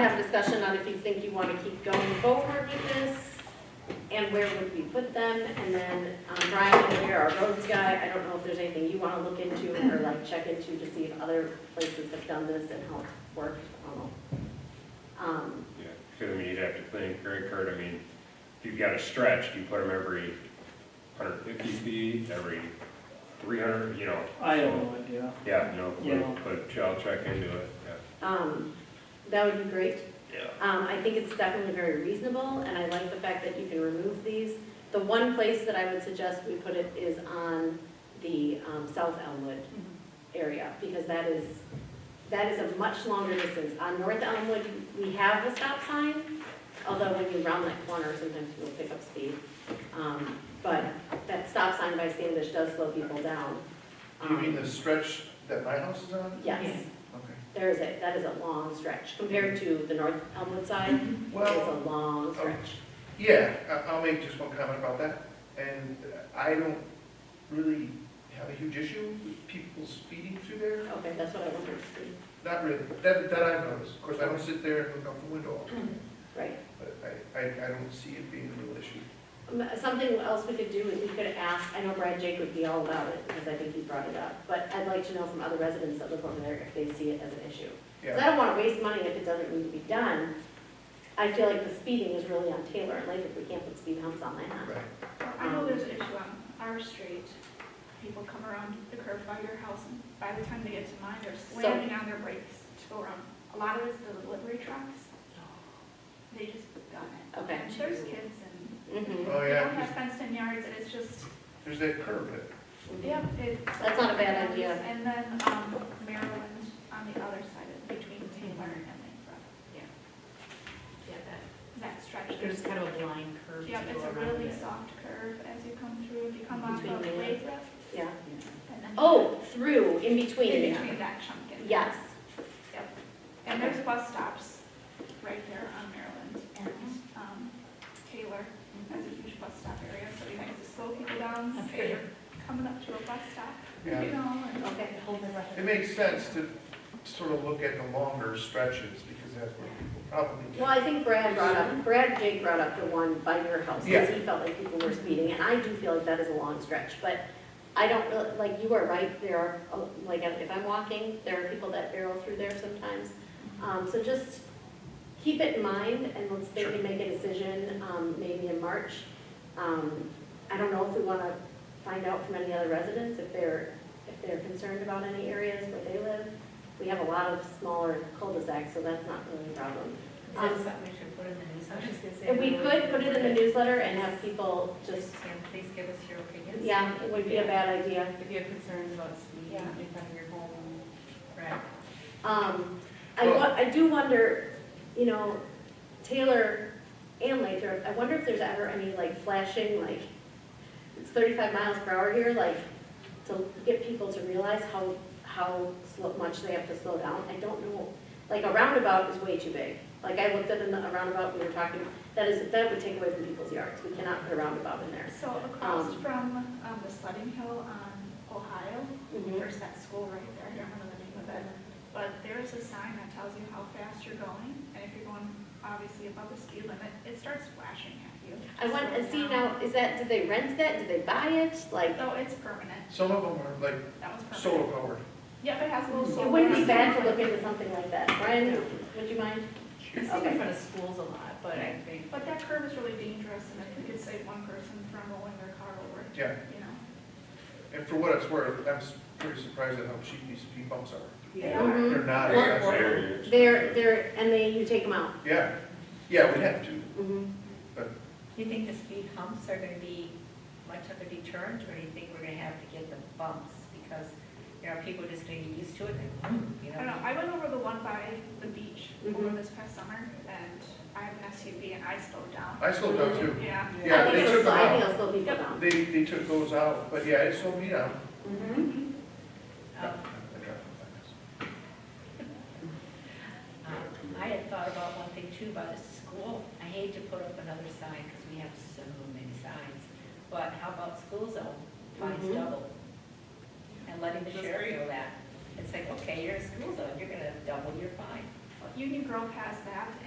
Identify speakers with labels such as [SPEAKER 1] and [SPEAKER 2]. [SPEAKER 1] Have discussion on if you think you want to keep going forward with this, and where would we put them? And then um, Brian, over here, our roads guy, I don't know if there's anything you want to look into or like check into to see if other places have done this and how it worked. I don't know. Um,
[SPEAKER 2] Yeah, because I mean, you'd have to think, Greg Kurt, I mean, if you've got a stretch, do you put them every hundred fifty feet, every three hundred, you know?
[SPEAKER 3] I have no idea.
[SPEAKER 2] Yeah, you know,
[SPEAKER 3] Yeah.
[SPEAKER 2] but, but y'all check into it,
[SPEAKER 1] um, That would be great.
[SPEAKER 2] yeah.
[SPEAKER 1] Um, I think it's definitely very reasonable, and I like the fact that you can remove these. The one place that I would suggest we put it is on the, um, South Elmwood area, because that is, that is a much longer distance. On North Elmwood, we have the stop sign, although when you round that corner, sometimes people pick up speed. Um, but that stop sign by Standish does slow people down.
[SPEAKER 4] You mean
[SPEAKER 1] Um,
[SPEAKER 4] the stretch that my house is on?
[SPEAKER 1] Yes,
[SPEAKER 4] Okay.
[SPEAKER 1] there is a, that is a long stretch compared to the North Elmwood side. It's
[SPEAKER 4] Mm-hmm. Well, oh.
[SPEAKER 1] a long stretch.
[SPEAKER 4] yeah, I- I'll make just one comment about that. And I don't really have a huge issue with people speeding through there.
[SPEAKER 1] Okay, that's what I wanted to see.
[SPEAKER 4] Not really. That, that I've noticed. Of course, I don't sit there and look out the window,
[SPEAKER 1] Right.
[SPEAKER 4] but I, I, I don't see it being a real issue.
[SPEAKER 1] Um, Something else we could do is we could ask, I know Brad Jake would be all about it, because I think he brought it up, but I'd like to know from other residents that live over there if they see it as an issue. Because I
[SPEAKER 4] Yeah,
[SPEAKER 1] don't want to waste money if it doesn't need to be done. I feel like the speeding is really on Taylor and Lathrop, we can't put speed humps on that.
[SPEAKER 4] right.
[SPEAKER 5] I know there's an issue on our street. People come around the curve by your house, and by the time they get to mine, they're slamming on their brakes to go around. A lot of it's the delivery trucks. They just gun it.
[SPEAKER 1] Okay.
[SPEAKER 5] And There's kids and
[SPEAKER 1] Mhm.
[SPEAKER 4] Oh,
[SPEAKER 5] they
[SPEAKER 4] yeah,
[SPEAKER 5] don't have fenced-in yards, and it's just,
[SPEAKER 4] there's that curve. there.
[SPEAKER 5] yep. it-
[SPEAKER 1] That's not a bad idea.
[SPEAKER 5] And then um, Maryland on the other side of, between Taylor and Lakefront.
[SPEAKER 6] Yeah, that,
[SPEAKER 5] That stretch,
[SPEAKER 6] there's
[SPEAKER 5] there's,
[SPEAKER 6] kind of a blind curve.
[SPEAKER 5] yep,
[SPEAKER 6] to
[SPEAKER 5] it's
[SPEAKER 6] go
[SPEAKER 5] a
[SPEAKER 6] around
[SPEAKER 5] really
[SPEAKER 6] it.
[SPEAKER 5] soft curve as you come through. If you come off
[SPEAKER 1] Between
[SPEAKER 5] of
[SPEAKER 1] Maryland.
[SPEAKER 5] Lathrop,
[SPEAKER 1] Yeah.
[SPEAKER 5] and then.
[SPEAKER 1] Oh, through, in
[SPEAKER 5] In
[SPEAKER 1] between.
[SPEAKER 5] between that chunk. in.
[SPEAKER 1] Yes.
[SPEAKER 5] And there's bus stops right there on Maryland and
[SPEAKER 1] Mm-hmm.
[SPEAKER 5] um, Taylor has a huge bus stop area, so you might just slow people down if
[SPEAKER 6] Okay.
[SPEAKER 5] you're coming up to a bus stop, you
[SPEAKER 4] Yeah.
[SPEAKER 5] know, and
[SPEAKER 1] Okay.
[SPEAKER 4] It makes sense to sort of look at the longer stretches because that's where people probably
[SPEAKER 1] Well,
[SPEAKER 4] get.
[SPEAKER 1] I think Brad brought up, Brad Jake brought up the one by your house, because he felt like people were speeding, and I do feel like that is a long stretch, but I don't, really- like, you are right, there are, uh, like, if I'm walking, there are people that barrel through there sometimes. Um, so just keep it in mind, and let's maybe
[SPEAKER 4] Sure.
[SPEAKER 1] make a decision, um, maybe in March. Um, I don't know if we wanna find out from any other residents if they're, if they're concerned about any areas where they live. We have a lot of smaller cul-de-sacs, so that's not really a problem.
[SPEAKER 6] Is that something we should put in the news? I was just gonna say.
[SPEAKER 1] Um, If we could put it in the newsletter and have people just,
[SPEAKER 6] Just, yeah, please give us your opinions.
[SPEAKER 1] yeah, it would be a bad idea.
[SPEAKER 6] If you have concerns about speed
[SPEAKER 5] Yeah.
[SPEAKER 6] in front of your home, right?
[SPEAKER 1] Um, I, wa- I do wonder, you know, Taylor and Lathrop, I wonder if there's ever any like flashing, like, it's thirty-five miles per hour here, like, to get people to realize how, how slow, much they have to slow down. I don't know, like, a roundabout is way too big. Like, I looked at a a roundabout, we were talking, that is, that would take away from people's yards. We cannot put a roundabout in there.
[SPEAKER 5] so across
[SPEAKER 1] Um.
[SPEAKER 5] from um, the sledding hill on Ohio,
[SPEAKER 1] Mhm.
[SPEAKER 5] there's that school right there, I don't remember the name of it. But there's a sign that tells you how fast you're going, and if you're going obviously above the speed limit, it starts flashing at you.
[SPEAKER 1] I want,
[SPEAKER 5] Slow
[SPEAKER 1] to see
[SPEAKER 5] down.
[SPEAKER 1] now, is that, did they rent that, did they buy it, like,
[SPEAKER 5] No, it's permanent,
[SPEAKER 4] Some of them are like
[SPEAKER 5] that was permanent.
[SPEAKER 4] solar powered.
[SPEAKER 5] Yep, it has a little solar.
[SPEAKER 1] it wouldn't be
[SPEAKER 5] on
[SPEAKER 1] bad
[SPEAKER 5] it.
[SPEAKER 1] to look into something like that, Brian, would you mind?
[SPEAKER 6] It's
[SPEAKER 1] Okay.
[SPEAKER 6] in front of schools a lot, but I think
[SPEAKER 5] But that curve is really dangerous, and if we could save one person from rolling their car over,
[SPEAKER 4] Yeah,
[SPEAKER 5] you know.
[SPEAKER 4] and for what it's worth, I'm s- pretty surprised at how cheap these speed bumps are.
[SPEAKER 6] they
[SPEAKER 1] Mhm.
[SPEAKER 6] are.
[SPEAKER 4] They're not,
[SPEAKER 1] Well,
[SPEAKER 4] expensive.
[SPEAKER 1] They're, they're, and they, you take them out.
[SPEAKER 4] yeah, yeah, we have to.
[SPEAKER 1] Mm-hmm.
[SPEAKER 6] Do you think the speed humps are gonna be much of a deterrent, or do you think we're gonna have to get the bumps? Because, you know, people just get used to it, and, you
[SPEAKER 5] I don't
[SPEAKER 6] know,
[SPEAKER 5] know, I went over the one by the beach over
[SPEAKER 1] Mhm.
[SPEAKER 5] this past summer, and I have an SUV and I slowed down.
[SPEAKER 4] I slowed down too.
[SPEAKER 5] Yeah.
[SPEAKER 4] Yeah,
[SPEAKER 1] Mm-hmm. I
[SPEAKER 4] they
[SPEAKER 1] think
[SPEAKER 4] took
[SPEAKER 1] it'll,
[SPEAKER 4] them
[SPEAKER 1] slow- I think
[SPEAKER 4] out.
[SPEAKER 1] it'll slow people down.
[SPEAKER 4] They, they took those out, but yeah, it slowed me down.
[SPEAKER 1] Mm-hmm.
[SPEAKER 6] um, Um, I had thought about one thing too about the school. I hate to put up another sign because we have so many signs. But how about school zone, fines
[SPEAKER 5] Mm-hmm.
[SPEAKER 1] Mhm.
[SPEAKER 6] double? And letting the sheriff know that. It's like, okay, you're in school zone, you're gonna double your fine.
[SPEAKER 5] Union Grove has that,